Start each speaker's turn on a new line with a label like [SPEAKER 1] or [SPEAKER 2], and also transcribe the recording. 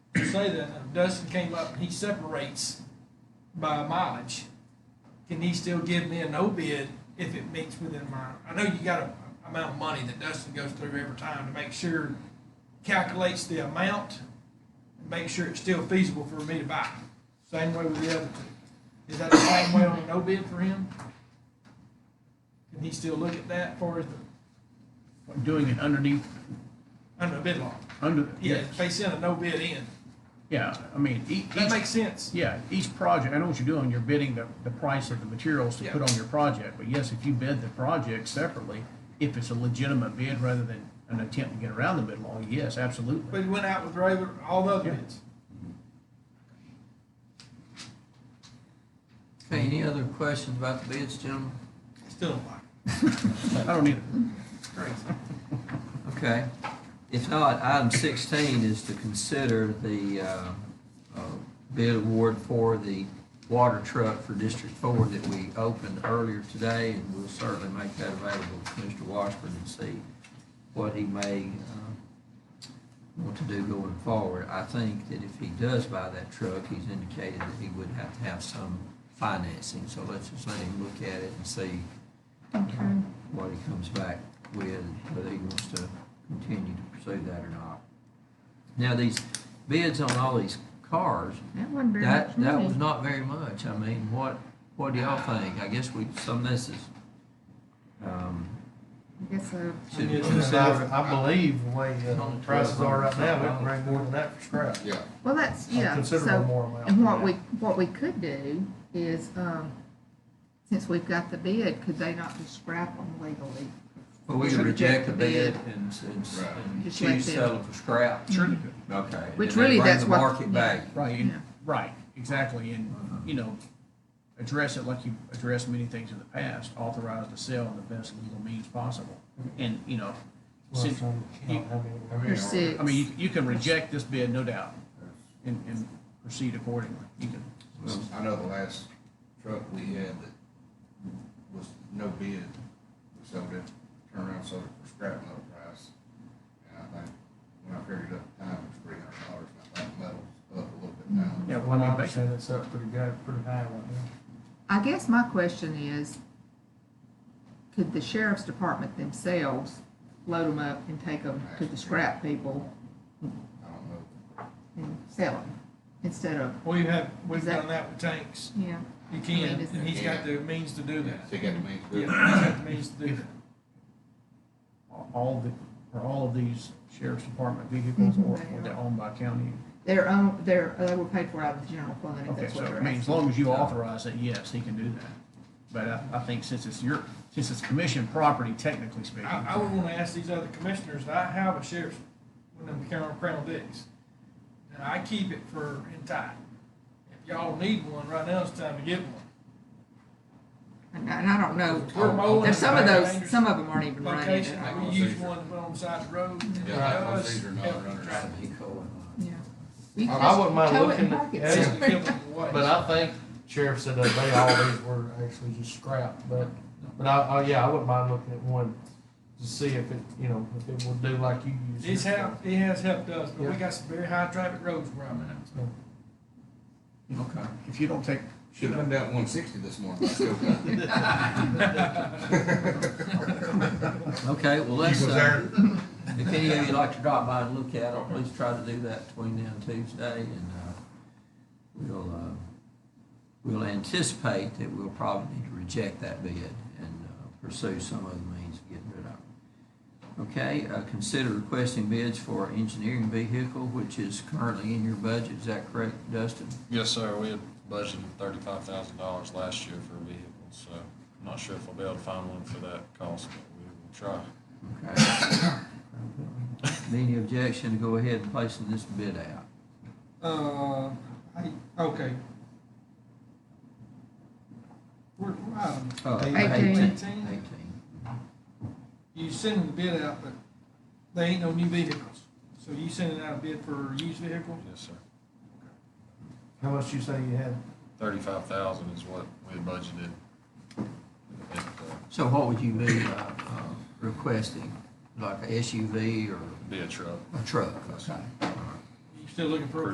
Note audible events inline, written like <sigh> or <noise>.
[SPEAKER 1] say that if Dustin came up, he separates by mileage. Can he still give me a no bid if it meets within my, I know you got a amount of money that Dustin goes through every time to make sure, calculates the amount, and make sure it's still feasible for me to buy. Same way with the other two. Is that the same way on a no bid for him? Can he still look at that for his,
[SPEAKER 2] Doing it underneath,
[SPEAKER 1] under a bid law?
[SPEAKER 2] under,
[SPEAKER 1] Yeah,
[SPEAKER 2] yes,
[SPEAKER 1] if they send a no bid in.
[SPEAKER 2] yeah, I mean, e, each,
[SPEAKER 1] That makes sense.
[SPEAKER 2] yeah, each project, I know what you're doing, you're bidding the, the price of the materials to put
[SPEAKER 1] Yeah.
[SPEAKER 2] on your project, but yes, if you bid the project separately, if it's a legitimate bid rather than an attempt to get around the bid law, yes,
[SPEAKER 1] But
[SPEAKER 2] absolutely.
[SPEAKER 1] it went out with Raven, all the other
[SPEAKER 2] Yeah.
[SPEAKER 1] bids.
[SPEAKER 3] Okay, any other questions about the bids, gentlemen?
[SPEAKER 1] Still don't like it.
[SPEAKER 2] I don't either.
[SPEAKER 1] <laughs> Crazy.
[SPEAKER 3] Okay. If not, item sixteen is to consider the uh, uh, bid award for the water truck for District Four that we opened earlier today, and we'll certainly make that available to Mr. Washburn and see what he may uh, want to do going forward. I think that if he does buy that truck, he's indicated that he would have to have some financing, so let's just let him look at it and see what he comes back with, whether he wants to continue to pursue that or not. Now, these bids on all these cars,
[SPEAKER 4] That wasn't very much
[SPEAKER 3] that, that
[SPEAKER 4] money.
[SPEAKER 3] was not very much. I mean, what, what do y'all think? I guess we, some of this is, um,
[SPEAKER 4] I guess, uh,
[SPEAKER 3] should
[SPEAKER 5] Yeah,
[SPEAKER 3] consider.
[SPEAKER 5] I I believe the way uh,
[SPEAKER 3] On
[SPEAKER 5] the
[SPEAKER 3] the
[SPEAKER 5] prices are right now, we
[SPEAKER 3] $12.
[SPEAKER 5] can bring more than that for scrap.
[SPEAKER 6] Yeah,
[SPEAKER 4] well, that's,
[SPEAKER 5] A
[SPEAKER 4] yeah,
[SPEAKER 5] Considerable
[SPEAKER 4] so,
[SPEAKER 5] more amount.
[SPEAKER 4] and what
[SPEAKER 5] than
[SPEAKER 4] we,
[SPEAKER 5] that.
[SPEAKER 4] what we could do is, um, since we've got the bid, could they not just scrap them legally?
[SPEAKER 3] Well, we could reject the bid and, s- and s-
[SPEAKER 6] Right.
[SPEAKER 3] and
[SPEAKER 4] Just let
[SPEAKER 3] choose
[SPEAKER 4] them-
[SPEAKER 3] sell it for scrap.
[SPEAKER 2] Sure they could.
[SPEAKER 3] Okay. and
[SPEAKER 4] Which
[SPEAKER 3] then
[SPEAKER 4] really,
[SPEAKER 3] bring
[SPEAKER 4] that's
[SPEAKER 3] the
[SPEAKER 4] what-
[SPEAKER 3] Market value.
[SPEAKER 2] Right, and-
[SPEAKER 4] Yeah.
[SPEAKER 2] right, exactly, and, you know, address it like you addressed many things in the past, authorize the sale in the best legal means possible. And, you know,
[SPEAKER 5] Well,
[SPEAKER 2] since,
[SPEAKER 5] so, you know, I mean, I mean,
[SPEAKER 4] Or six?
[SPEAKER 2] I mean, you, you can reject this bid, no doubt, and, and proceed accordingly, you can.
[SPEAKER 6] I know the last truck we had that was no bid, we sold it, turned around, sold it for scrap metal price. And I think, when I figured up the time, it was three hundred dollars, and I think metal's up a little bit now.
[SPEAKER 2] Yeah,
[SPEAKER 5] From what I understand, it's up pretty good, pretty high right now.
[SPEAKER 4] I guess my question is, could the sheriff's department themselves load them up and take them to the scrap people
[SPEAKER 6] I don't know.
[SPEAKER 4] and sell them instead of,
[SPEAKER 1] We've had, we've
[SPEAKER 4] Is that-
[SPEAKER 1] done that with tanks.
[SPEAKER 4] yeah,
[SPEAKER 1] You
[SPEAKER 4] I
[SPEAKER 1] can,
[SPEAKER 4] mean, is-
[SPEAKER 1] and he's got the means to do that.
[SPEAKER 6] So you got to make.
[SPEAKER 1] Yeah, he's got the means to do that.
[SPEAKER 2] All the, or all of these sheriff's department vehicles, or
[SPEAKER 4] Mhm, they
[SPEAKER 2] or they're
[SPEAKER 4] are.
[SPEAKER 2] owned by county.
[SPEAKER 4] their own, their, they were paid for out of the general fund, if
[SPEAKER 2] Okay,
[SPEAKER 4] that's
[SPEAKER 2] so,
[SPEAKER 4] what
[SPEAKER 2] I
[SPEAKER 4] they're
[SPEAKER 2] mean, as
[SPEAKER 4] asking.
[SPEAKER 2] long as you authorize it, yes, he can do that. But I, I think since it's your, since it's commission property, technically speaking.
[SPEAKER 1] I, I would wanna ask these other commissioners, I have a sheriff's, one of them Crown, Crown Dicks. And I keep it for in time. If y'all need one, right now it's time to get one.
[SPEAKER 4] And I and I
[SPEAKER 1] We're
[SPEAKER 4] don't know, Oh,
[SPEAKER 1] mowing
[SPEAKER 4] there's some of
[SPEAKER 1] the
[SPEAKER 4] those,
[SPEAKER 1] dangerous
[SPEAKER 4] some of them aren't even running.
[SPEAKER 1] Location,
[SPEAKER 4] at all.
[SPEAKER 1] we use one to put on the side of the road. and
[SPEAKER 6] Yeah, like
[SPEAKER 1] us,
[SPEAKER 6] those these are not
[SPEAKER 1] help
[SPEAKER 6] runners.
[SPEAKER 1] drive it.
[SPEAKER 4] Yeah. You
[SPEAKER 5] I- I
[SPEAKER 4] just
[SPEAKER 5] wouldn't mind
[SPEAKER 4] tow it and
[SPEAKER 5] looking at-
[SPEAKER 4] park it
[SPEAKER 1] Just
[SPEAKER 5] yeah.
[SPEAKER 1] to
[SPEAKER 4] somewhere. <laughs>
[SPEAKER 1] give them away.
[SPEAKER 5] But I think sheriff said that they all these were actually just scrap, but, but I, oh, yeah, I wouldn't mind looking at one to see if it, you know, if it will do like you use.
[SPEAKER 1] It's
[SPEAKER 5] yours for.
[SPEAKER 1] helped, it has helped us, but we
[SPEAKER 5] Yeah.
[SPEAKER 1] got some very high traffic roads where I'm at.
[SPEAKER 3] uh,
[SPEAKER 6] Okay.
[SPEAKER 2] If you don't take,
[SPEAKER 6] Should've been down one sixty this morning. but I still got it.
[SPEAKER 3] Okay, well,
[SPEAKER 6] You
[SPEAKER 3] let's,
[SPEAKER 6] was
[SPEAKER 3] uh,
[SPEAKER 6] there.
[SPEAKER 3] if any of you like to drop by and look at it, please try to do that between now and Tuesday, and, uh, we'll, uh, we'll anticipate that we'll probably need to reject that bid and uh, pursue some other means of getting rid of it. Okay, uh, consider requesting bids for our engineering vehicle, which is currently in your budget, is that correct, Dustin?
[SPEAKER 7] Yes, sir, we had budgeted thirty-five thousand dollars last year for a vehicle, so I'm not sure if we'll be able to find one for that cost, but we will try.
[SPEAKER 3] Okay. <coughs> Any objection to go ahead and placing this bid out?
[SPEAKER 1] Uh, I, okay. We're, we're item
[SPEAKER 3] Uh,
[SPEAKER 4] Eighteen.
[SPEAKER 3] Eighteen.
[SPEAKER 1] You sending the bid out, but they ain't no new vehicles. So you sending out a bid for used vehicle?
[SPEAKER 7] Yes, sir.
[SPEAKER 5] How much you say you had?
[SPEAKER 7] Thirty-five thousand is what we had budgeted. at the
[SPEAKER 3] So what would you be uh, uh, requesting, like a SUV or
[SPEAKER 7] Be a truck.
[SPEAKER 3] a truck? Okay.
[SPEAKER 1] You still looking for a